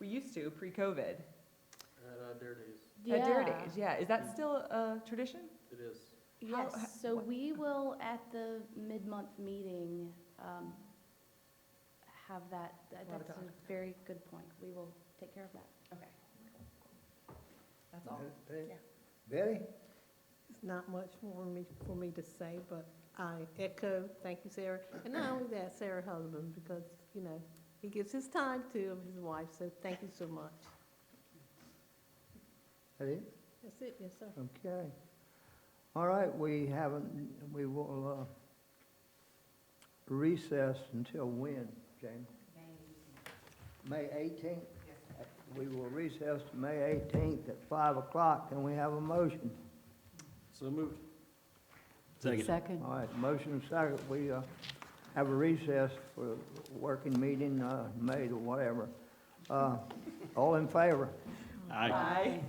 We used to pre-COVID. At uh, Dare Days, At Dare Yeah. Days, yeah. Is that still a tradition? it is. How- Yes, h- so what- we will, at the mid-month meeting, um, have that, that- We'll have that's a that. very good point. We will take care of that. Okay. That's all. Betty? Yeah. Betty? It's not much for me, for me to say, but I echo, thank you, Sarah. And not only that, Sarah Husband, because, you know, he gives his time to his wife, so thank you so much. That it? That's it, yes, sir. Okay. All right, we haven't, we will uh, recess until when, Jamie? May eighteenth? We will recess to May eighteenth at five o'clock, and we have a motion. So moved. Second. All right, motion and second, we uh, have a recess for a working meeting, uh, May or whatever. Uh, All in favor? Bye.